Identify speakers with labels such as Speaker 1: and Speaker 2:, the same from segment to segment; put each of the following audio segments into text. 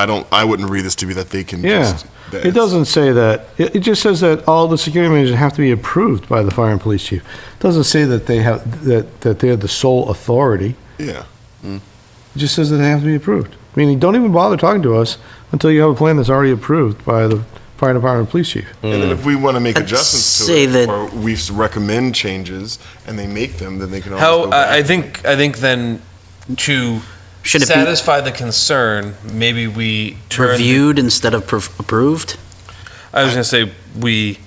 Speaker 1: I don't, I wouldn't read this to be that they can
Speaker 2: Yeah,
Speaker 1: just. that
Speaker 2: it
Speaker 1: it's-
Speaker 2: doesn't say that. It, it just says that all the security measures have to be approved by the fire and police chief. Doesn't say that they have, that, that they're the sole authority.
Speaker 1: Yeah.
Speaker 2: It just says that they have to be approved. Meaning, don't even bother talking to us until you have a plan that's already approved by the fire department and police chief.
Speaker 1: And
Speaker 3: Hmm.
Speaker 1: then if we want to make
Speaker 4: I'd
Speaker 1: adjustments to
Speaker 4: say
Speaker 1: it,
Speaker 4: that-
Speaker 1: or we s- recommend changes and they make them, then they can always
Speaker 3: How
Speaker 1: go back.
Speaker 3: I I think I think then to
Speaker 4: Should it be
Speaker 3: satisfy the concern, maybe we turn.
Speaker 4: reviewed instead of prov- approved?
Speaker 3: I was going to say we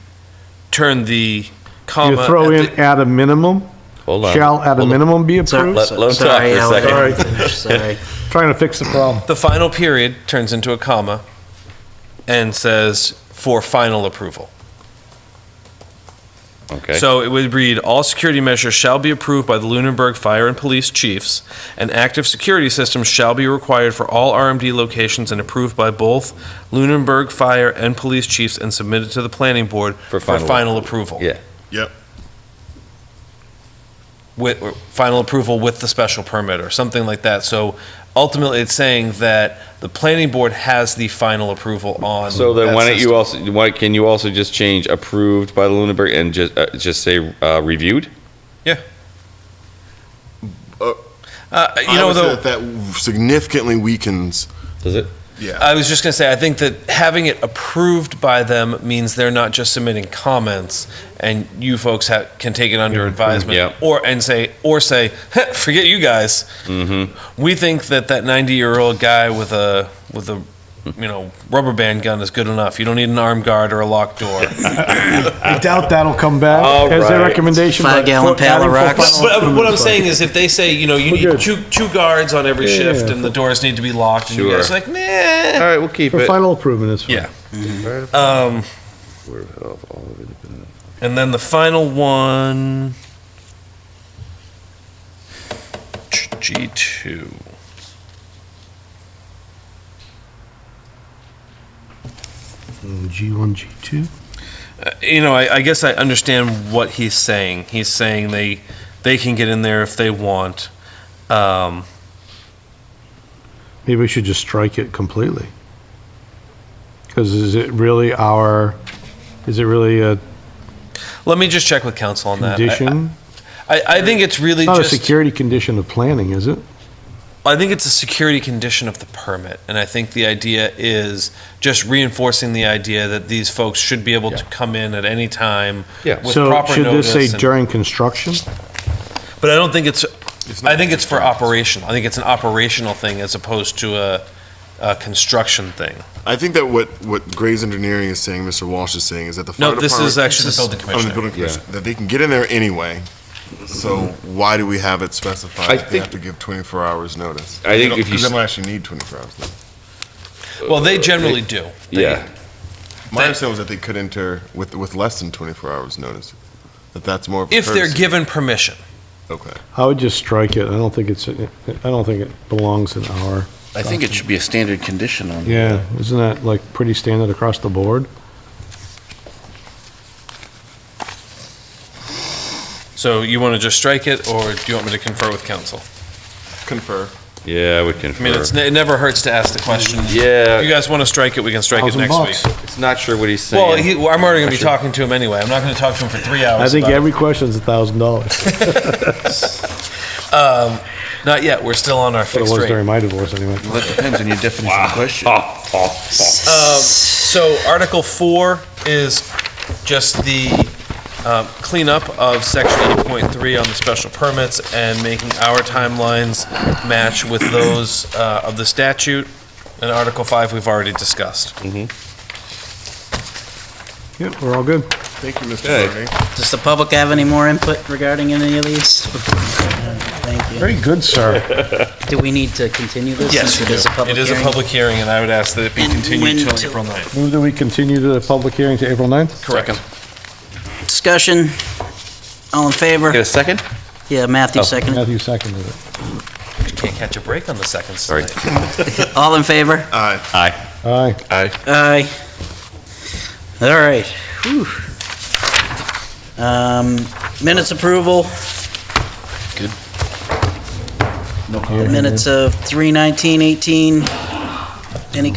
Speaker 3: turn the comma.
Speaker 2: You throw
Speaker 3: uh, at
Speaker 2: in
Speaker 3: the-
Speaker 2: at a minimum,
Speaker 5: Hold on.
Speaker 2: shall at a
Speaker 5: Hold on.
Speaker 2: minimum be
Speaker 4: Sorry,
Speaker 2: approved?
Speaker 5: Let- let him talk
Speaker 4: sorry,
Speaker 5: for a
Speaker 4: Alan.
Speaker 2: second.
Speaker 4: Sorry.
Speaker 2: Trying to fix the problem.
Speaker 3: the final period turns into a comma and says for final approval.
Speaker 5: Okay.
Speaker 3: So it would read, all security measures shall be approved by the Lunenburg Fire and Police Chiefs. An active security system shall be required for all RMD locations and approved by both Lunenburg Fire and Police Chiefs and submitted to the planning board for
Speaker 5: For final-
Speaker 3: final approval.
Speaker 5: Yeah.
Speaker 1: Yep.
Speaker 3: With, or final approval with the special permit or something like that. So ultimately, it's saying that the planning board has the final approval on.
Speaker 5: So then,
Speaker 3: that
Speaker 5: why don't
Speaker 3: system.
Speaker 5: you also? Why can you also just change approved by the Lunenburg and just uh, just say uh, reviewed?
Speaker 3: Uh, You
Speaker 1: I
Speaker 3: know,
Speaker 1: would
Speaker 3: though.
Speaker 1: say that that significantly weakens,
Speaker 5: Does it?
Speaker 1: yeah.
Speaker 3: I was just going to say, I think that having it approved by them means they're not just submitting comments, and you folks ha can take it
Speaker 2: Mm-hmm.
Speaker 3: under advisement,
Speaker 5: yeah.
Speaker 3: or and say, or say, "Heh, forget you guys.
Speaker 5: Mm-hmm.
Speaker 3: We think that that ninety-year-old guy with a with a you know rubber band gun is good enough. You don't need an arm guard or a locked door.
Speaker 2: I doubt that'll come back
Speaker 5: All
Speaker 2: as their
Speaker 5: right.
Speaker 2: recommendation. but
Speaker 4: Five-gallon
Speaker 2: for-
Speaker 4: pail of
Speaker 2: adding for
Speaker 4: rocks.
Speaker 2: final
Speaker 3: but but what I'm
Speaker 2: improvements,
Speaker 3: saying is, if they say, you know, you
Speaker 2: We're
Speaker 3: need
Speaker 2: good.
Speaker 3: two two guards on every
Speaker 2: Yeah, yeah,
Speaker 3: shift,
Speaker 2: yeah.
Speaker 3: and the doors need to be locked, and you
Speaker 5: Sure.
Speaker 3: guys are like, nah.
Speaker 5: All right, we'll keep
Speaker 2: For
Speaker 5: it.
Speaker 2: final improvement is fine.
Speaker 3: Yeah.
Speaker 2: Mm-hmm.
Speaker 3: Um, and then the final one. G2.
Speaker 2: G1, G2.
Speaker 3: Uh, You know, I, I guess I understand what he's saying. He's saying they they can get in there if they want. Um,
Speaker 2: Maybe we should just strike it completely. Because is it really our, is it really a
Speaker 3: let me just check with council on that. Uh, I-
Speaker 2: condition?
Speaker 3: I, I, think it's really
Speaker 2: Not a
Speaker 3: just.
Speaker 2: security condition of planning, is it?
Speaker 3: I think it's a security condition of the permit, and I think the idea is just reinforcing the idea that these folks should be able to come in at any time
Speaker 5: Yeah.
Speaker 3: with proper
Speaker 2: So should
Speaker 3: notice.
Speaker 2: this say
Speaker 3: and-
Speaker 2: during construction?
Speaker 3: but I don't think it's.
Speaker 1: It's
Speaker 3: I
Speaker 1: not-
Speaker 3: think it's for operational. I think it's an operational thing as opposed to a, a construction thing.
Speaker 1: I think that what, what Gray's Engineering is saying, Mr. Walsh is saying, is that the fire
Speaker 3: No,
Speaker 1: department.
Speaker 3: this is actually the building
Speaker 1: Oh, the
Speaker 3: commissioner.
Speaker 1: building commissioner, that they can get in there anyway. So why do we have it specified
Speaker 5: I
Speaker 1: that they have to
Speaker 5: think-
Speaker 1: give 24 hours notice?
Speaker 5: I think if you
Speaker 1: Because
Speaker 5: s-
Speaker 1: they don't actually need 24 hours. notice.
Speaker 3: Well, they generally do. They-
Speaker 5: Yeah.
Speaker 1: My
Speaker 3: That-
Speaker 1: understanding was that they could enter with, with less than 24 hours notice, that that's more of a
Speaker 3: If they're
Speaker 1: courtesy.
Speaker 3: given permission.
Speaker 1: Okay.
Speaker 2: I would just strike it. I don't think it's, I don't think it belongs in our,
Speaker 6: I think it should be a standard condition on.
Speaker 2: yeah, isn't that like pretty standard across the board?
Speaker 3: So you want to just strike it, or do you want me to confer with council?
Speaker 1: Confer.
Speaker 5: Yeah, we can.
Speaker 3: I mean, it's, ne- it never hurts to ask the question.
Speaker 5: Yeah.
Speaker 3: If you guys want to strike it, we can strike it
Speaker 2: Thousand
Speaker 3: next week.
Speaker 2: bucks.
Speaker 5: it's not sure what he's saying.
Speaker 3: Well, he, well, I'm already going to be talking to him anyway. I'm not going to talk to him for three hours.
Speaker 2: I think
Speaker 3: about it.
Speaker 2: every question's a thousand dollars.
Speaker 3: Um, not yet. We're still on our
Speaker 2: It was
Speaker 3: fixed rate.
Speaker 2: during my divorce anyway.
Speaker 6: Well, that depends on your definition of question.
Speaker 3: Um, so Article Four is just the um, cleanup of Section 8.3 on the special permits and making our timelines match with those uh, of the statute. And Article Five we've already discussed.
Speaker 2: Yep, we're all good.
Speaker 1: Thank you, Mr.
Speaker 5: Okay.
Speaker 1: Bernie.
Speaker 4: Does the public have any more input regarding any of these? Thank you.
Speaker 2: Very good, sir.
Speaker 4: Do we need to continue this? since
Speaker 3: we
Speaker 4: It is
Speaker 3: do.
Speaker 4: a public
Speaker 3: It is a
Speaker 4: hearing?
Speaker 3: public hearing, and I would ask that it be
Speaker 4: And
Speaker 3: continued
Speaker 4: when
Speaker 3: until
Speaker 4: to-
Speaker 3: April 9th.
Speaker 2: Move that we continue the public hearing to April 9th?
Speaker 3: Correct.
Speaker 4: Discussion? All in
Speaker 5: Get
Speaker 4: favor?
Speaker 5: a second?
Speaker 4: Yeah, Matthew
Speaker 5: Oh.
Speaker 4: seconded.
Speaker 2: Matthew seconded it.
Speaker 3: Can't catch a break on the seconds
Speaker 5: Sorry.
Speaker 3: tonight.
Speaker 4: All in favor?
Speaker 1: Aye.
Speaker 5: Aye.
Speaker 2: Aye.
Speaker 4: Aye. All right. Whew. Um, Minutes approval,
Speaker 6: Good. No
Speaker 4: minutes of 31918.